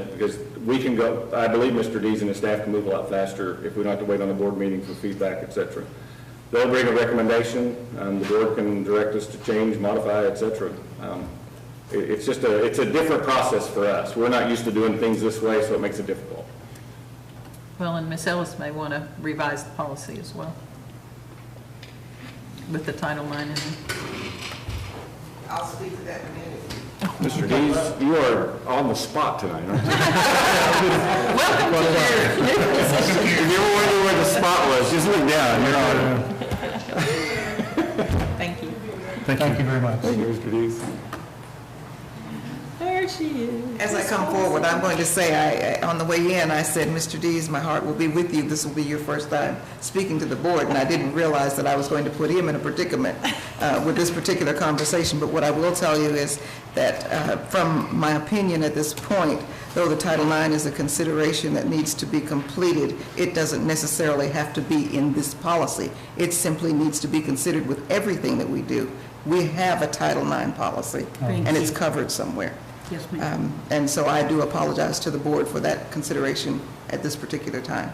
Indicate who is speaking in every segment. Speaker 1: Because we can go, I believe Mr. Dees and his staff can move a lot faster if we don't have to wait on the board meeting for feedback, et cetera. They'll bring a recommendation, um, the board can direct us to change, modify, et cetera. Um, it- It's just a, it's a different process for us. We're not used to doing things this way, so it makes it difficult.
Speaker 2: Well, and Ms. Ellis may want to revise the policy as well with the Title IX in it.
Speaker 3: I'll speak to that in a minute.
Speaker 1: Mr. Dees, you are on the spot tonight, aren't you?
Speaker 2: Welcome to your new position.
Speaker 1: If you ever wonder where the spot was, just look down, you're on it.
Speaker 2: Thank you.
Speaker 4: Thank you very much.
Speaker 1: Thank you, Mr. Dees.
Speaker 2: There she is.
Speaker 3: As I come forward, I'm going to say, I, I- on the way in, I said, "Mr. Dees, my heart will be with you. This will be your first time speaking to the board." And I didn't realize that I was going to put him in a predicament uh, with this particular conversation. But what I will tell you is that, uh, from my opinion at this point, though the Title IX is a consideration that needs to be completed, it doesn't necessarily have to be in this policy. It simply needs to be considered with everything that we do. We have a Title IX policy,
Speaker 2: Thank
Speaker 3: and it's
Speaker 2: you.
Speaker 3: covered somewhere.
Speaker 2: Yes, ma'am.
Speaker 3: Um, And so I do apologize to the board for that consideration at this particular time.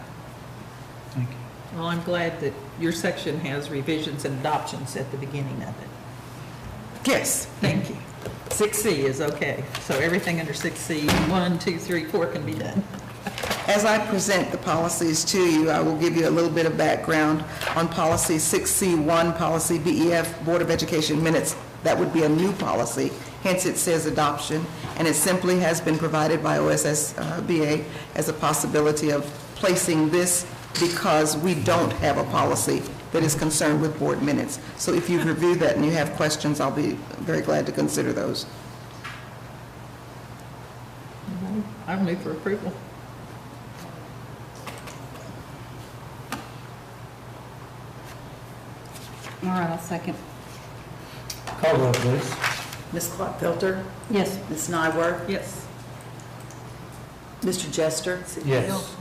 Speaker 4: Thank you.
Speaker 2: Well, I'm glad that your section has revisions and adoptions at the beginning of it.
Speaker 3: Yes,
Speaker 2: Thank you. 6C is okay, so everything under 6C, 1, 2, 3, 4 can be done.
Speaker 3: as I present the policies to you, I will give you a little bit of background on policy 6C1, policy BEF, Board of Education minutes. That would be a new policy, hence it says adoption, and it simply has been provided by OSSBA as uh, a possibility of placing this because we don't have a policy that is concerned with board minutes. So if you've reviewed that and you have questions, I'll be very glad to consider those.
Speaker 2: I'll move for approval.
Speaker 5: All right, I'll second.
Speaker 4: Call roll, please.
Speaker 6: Ms. Clark Filter,
Speaker 5: Yes.
Speaker 6: Ms. Nyworth,
Speaker 2: Yes.
Speaker 6: Mr. Jester,
Speaker 4: Yes.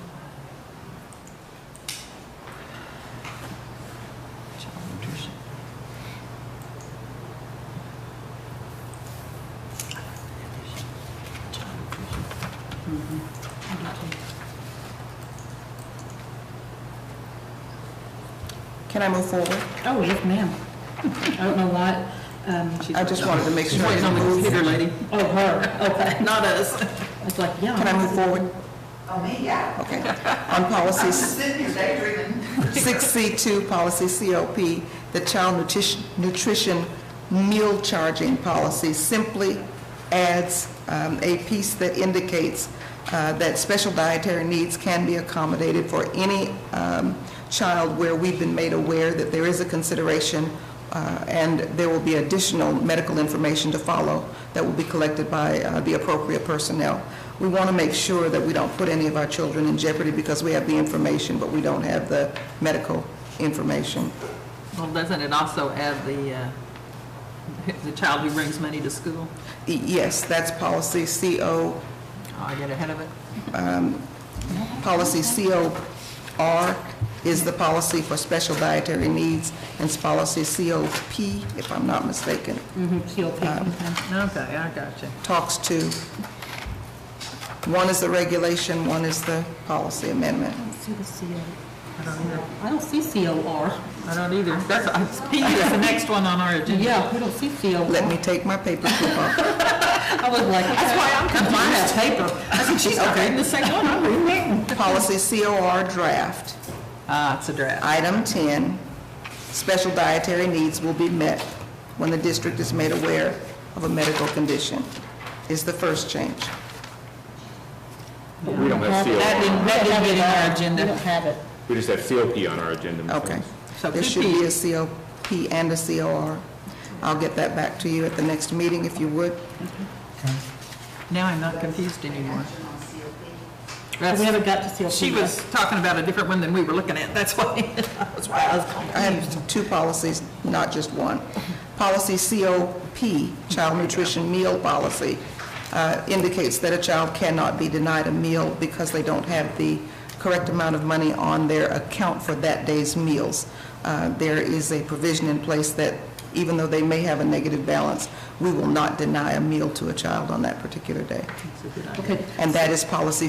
Speaker 3: Can I move forward?
Speaker 5: Oh, yes, ma'am. I don't know why, um, she's.
Speaker 3: I just wanted to make sure. I didn't move.
Speaker 2: computer lady.
Speaker 5: Oh, her, okay.
Speaker 2: Not us.
Speaker 5: I was like, yeah.
Speaker 3: Can I move forward?
Speaker 7: Oh, me, yeah.
Speaker 3: Okay. On policies
Speaker 7: Sitting here daydreaming.
Speaker 3: 6C2, policy COP, the child nutrition, nutrition meal charging policy simply adds um, a piece that indicates uh, that special dietary needs can be accommodated for any um, child where we've been made aware that there is a consideration uh, and there will be additional medical information to follow that will be collected by uh, the appropriate personnel. We want to make sure that we don't put any of our children in jeopardy because we have the information, but we don't have the medical information.
Speaker 2: Well, doesn't it also add the, uh, the child who brings money to school?
Speaker 3: E- Yes, that's policy CO,
Speaker 2: Oh, I get ahead of it.
Speaker 3: policy COR is the policy for special dietary needs, and it's policy COP, if I'm not mistaken,
Speaker 5: Mhm, she'll pick them.
Speaker 2: Okay, I got you.
Speaker 3: talks to, one is the regulation, one is the policy amendment.
Speaker 5: I don't see the CO. I don't see COR.
Speaker 2: I don't either. That's, I- P is the next one on our agenda.
Speaker 5: Yeah, we don't see COR.
Speaker 3: Let me take my paper clip off.
Speaker 5: I was like. That's
Speaker 2: why I'm confused.
Speaker 5: Mine has paper.
Speaker 2: I said, she's not reading the same one I'm reading.
Speaker 3: Policy COR draft.
Speaker 2: Ah, it's a draft.
Speaker 3: Item 10, special dietary needs will be met when the district is made aware of a medical condition, is the first change.
Speaker 1: We don't have
Speaker 2: That
Speaker 1: COP,
Speaker 2: didn't, that didn't get in our
Speaker 5: We don't
Speaker 2: agenda.
Speaker 5: have it.
Speaker 1: we just have COP on our agenda. Ms.
Speaker 3: Okay.
Speaker 1: Holmes.
Speaker 2: So
Speaker 3: There
Speaker 2: could
Speaker 3: should be
Speaker 2: be.
Speaker 3: a COP and a COR. I'll get that back to you at the next meeting if you would.
Speaker 2: Now I'm not confused anymore.
Speaker 5: We
Speaker 2: That's-
Speaker 5: haven't got to COP.
Speaker 2: She
Speaker 5: yet.
Speaker 2: was talking about a different one than we were looking at. That's why, that's why I was confused.
Speaker 3: I have two policies, not just one. Policy COP, Child Nutrition Meal Policy, uh, indicates that a child cannot be denied a meal because they don't have the correct amount of money on their account for that day's meals. Uh, There is a provision in place that even though they may have a negative balance, we will not deny a meal to a child on that particular day.
Speaker 5: Okay.
Speaker 3: And that is policy